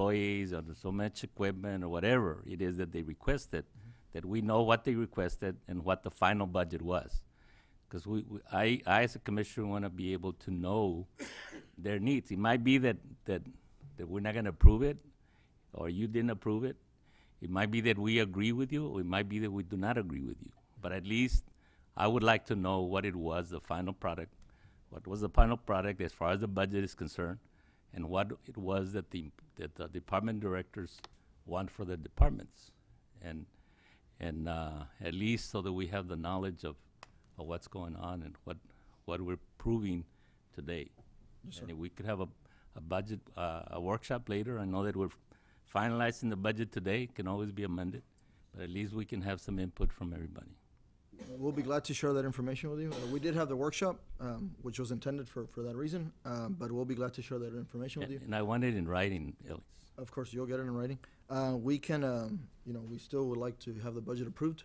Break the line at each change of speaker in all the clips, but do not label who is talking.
employees or so much equipment or whatever it is that they requested, that we know what they requested and what the final budget was. Because we, we- I, I as a commissioner want to be able to know their needs. It might be that, that, that we're not going to approve it, or you didn't approve it. It might be that we agree with you, or it might be that we do not agree with you. But at least I would like to know what it was, the final product, what was the final product as far as the budget is concerned, and what it was that the, that the department directors want for the departments. And, and, uh, at least so that we have the knowledge of, of what's going on and what, what we're proving today. And if we could have a, a budget, uh, a workshop later, I know that we're finalizing the budget today, it can always be amended, but at least we can have some input from everybody.
We'll be glad to share that information with you. Uh, We did have the workshop, um, which was intended for, for that reason, um, but we'll be glad to share that information with you.
And and I want it in writing, Ellis.
Of course, you'll get it in writing. Uh, we can, um, you know, we still would like to have the budget approved,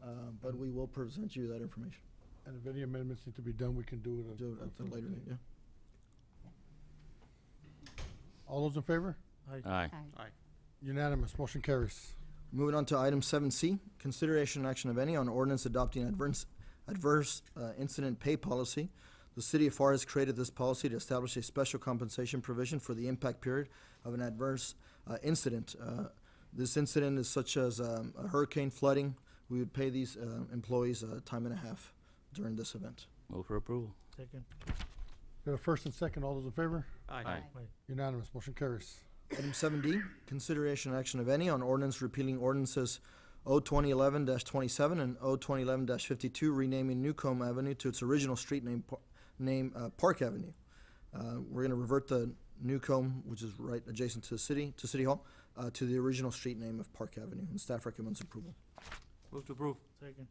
uh, but we will present you that information
And if any amendments need to be done, we can do it.
Do it at a later date, yeah.
All those in favor?
Aye.
Unanimous, motion carries.
Moving on to item seven C, consideration and action of any on ordinance adopting adverse, adverse uh, incident pay policy. The city of FAR has created this policy to establish a special compensation provision for the impact period of an adverse uh, incident. Uh, This incident is such as um, a hurricane flooding. We would pay these uh, employees uh, time and a half during this event.
Move for approval.
Second.
We have a first and second, all those in favor?
Aye.
Unanimous, motion carries.
Item seven D, consideration and action of any on ordinance repealing ordinances O twenty eleven twenty-seven and O twenty eleven fifty-two, renaming Newcomb Avenue to its original street name, Par- name, uh, Park Avenue. Uh, we're gonna revert the Newcomb, which is right adjacent to the city, to City Hall, uh, to the original street name of Park Avenue, and staff recommends approval.
Move to approve.
Second.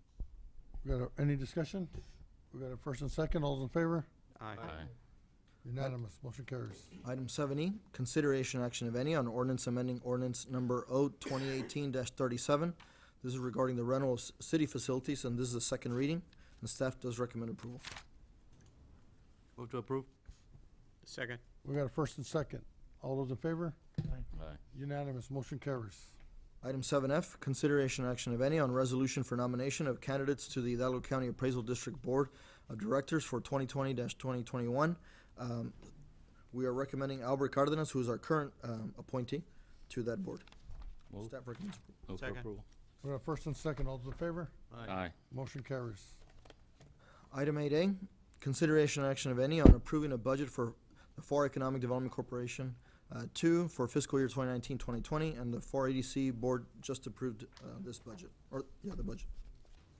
We got a, any discussion? We got a first and second, all those in favor?
Aye.
Unanimous, motion carries.
Item seven E, consideration action of any on ordinance amending ordinance number O twenty eighteen thirty-seven. This is regarding the rental of s- city facilities, and this is the second reading, and staff does recommend approval.
Move to approve. Second.
We got a first and second, all those in favor?
Aye.
Unanimous, motion carries.
Item seven F, consideration action of any on resolution for nomination of candidates to the Hidalgo County Appraisal District Board of Directors for twenty twenty twenty twenty-one. Um, We are recommending Albert Cardenas, who is our current um, appointee, to that board.
Move,
Staff recommends approval.
move for
Second.
approval.
We got a first and second, all those in favor? Motion carries.
Item eight A, consideration and action of any on approving a budget for the FAR Economic Development Corporation, uh, two for fiscal year 2019-2020, and the FAR ADC E Board just approved, uh, this budget, or, yeah, the budget.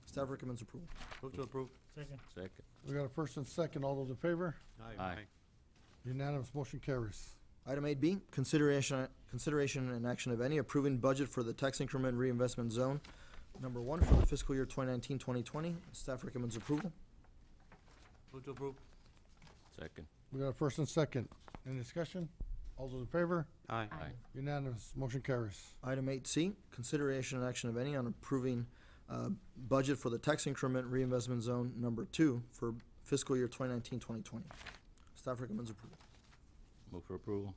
Staff recommends approval.
Move to approve.
Second.
Second.
We got a first and second, all those in favor?
Aye.
Unanimous, motion carries.
Item eight B, consideration, consideration and action of any approving budget for the tax increment reinvestment zone, number one for the fiscal year 2019-2020. Staff recommends approval.
Move to approve.
Second.
We got a first and second. Any discussion? All those in favor?
Aye.
Aye.
Unanimous. Motion carries.
Item eight C, consideration and action of any on approving, uh, budget for the tax increment reinvestment zone, number two for fiscal year 2019-2020. Staff recommends approval.
Move for approval.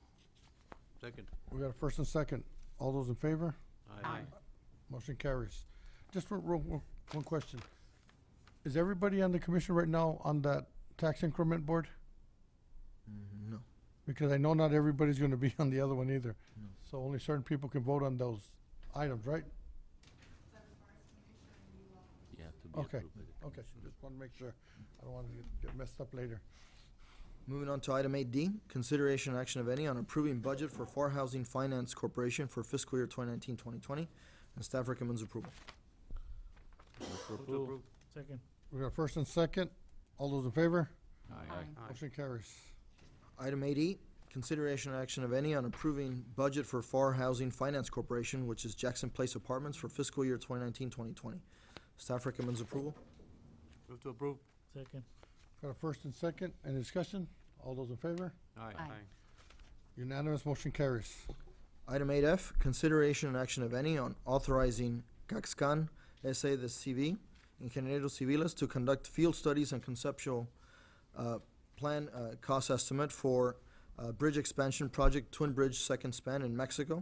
Second.
We got a first and second. All those in favor?
Aye.
Motion carries. Just one, one, one question. Is everybody on the commission right now on that tax increment board?
Mm, No.
Because I know not everybody's gonna be on the other one either.
No.
So only certain people can vote on those items, right?
You have to be
Okay.
approved. by the
Okay,
commission.
just wanna make sure. I don't wanna get- get messed up later.
Moving on to item eight D, consideration and action of any on approving budget for Far Housing Finance Corporation for fiscal year 2019-2020, and staff recommends approval.
Move for
Move to
approval.
approve.
Second.
We got a first and second. All those in favor?
Aye.
Motion carries.
Item eight E, consideration and action of any on approving budget for Far Housing Finance Corporation, which is Jackson Place Apartments for fiscal year 2019-2020. Staff recommends approval.
Move to approve.
Second.
Got a first and second. Any discussion? All those in favor?
Aye.
Unanimous, motion carries.
Item eight F, consideration and action of any on authorizing Caxcan S.A. the CV, Ingenieros Civiles, to conduct field studies and conceptual uh, plan uh, cost estimate for uh, uh, bridge expansion project, Twin Bridge Second Span in Mexico.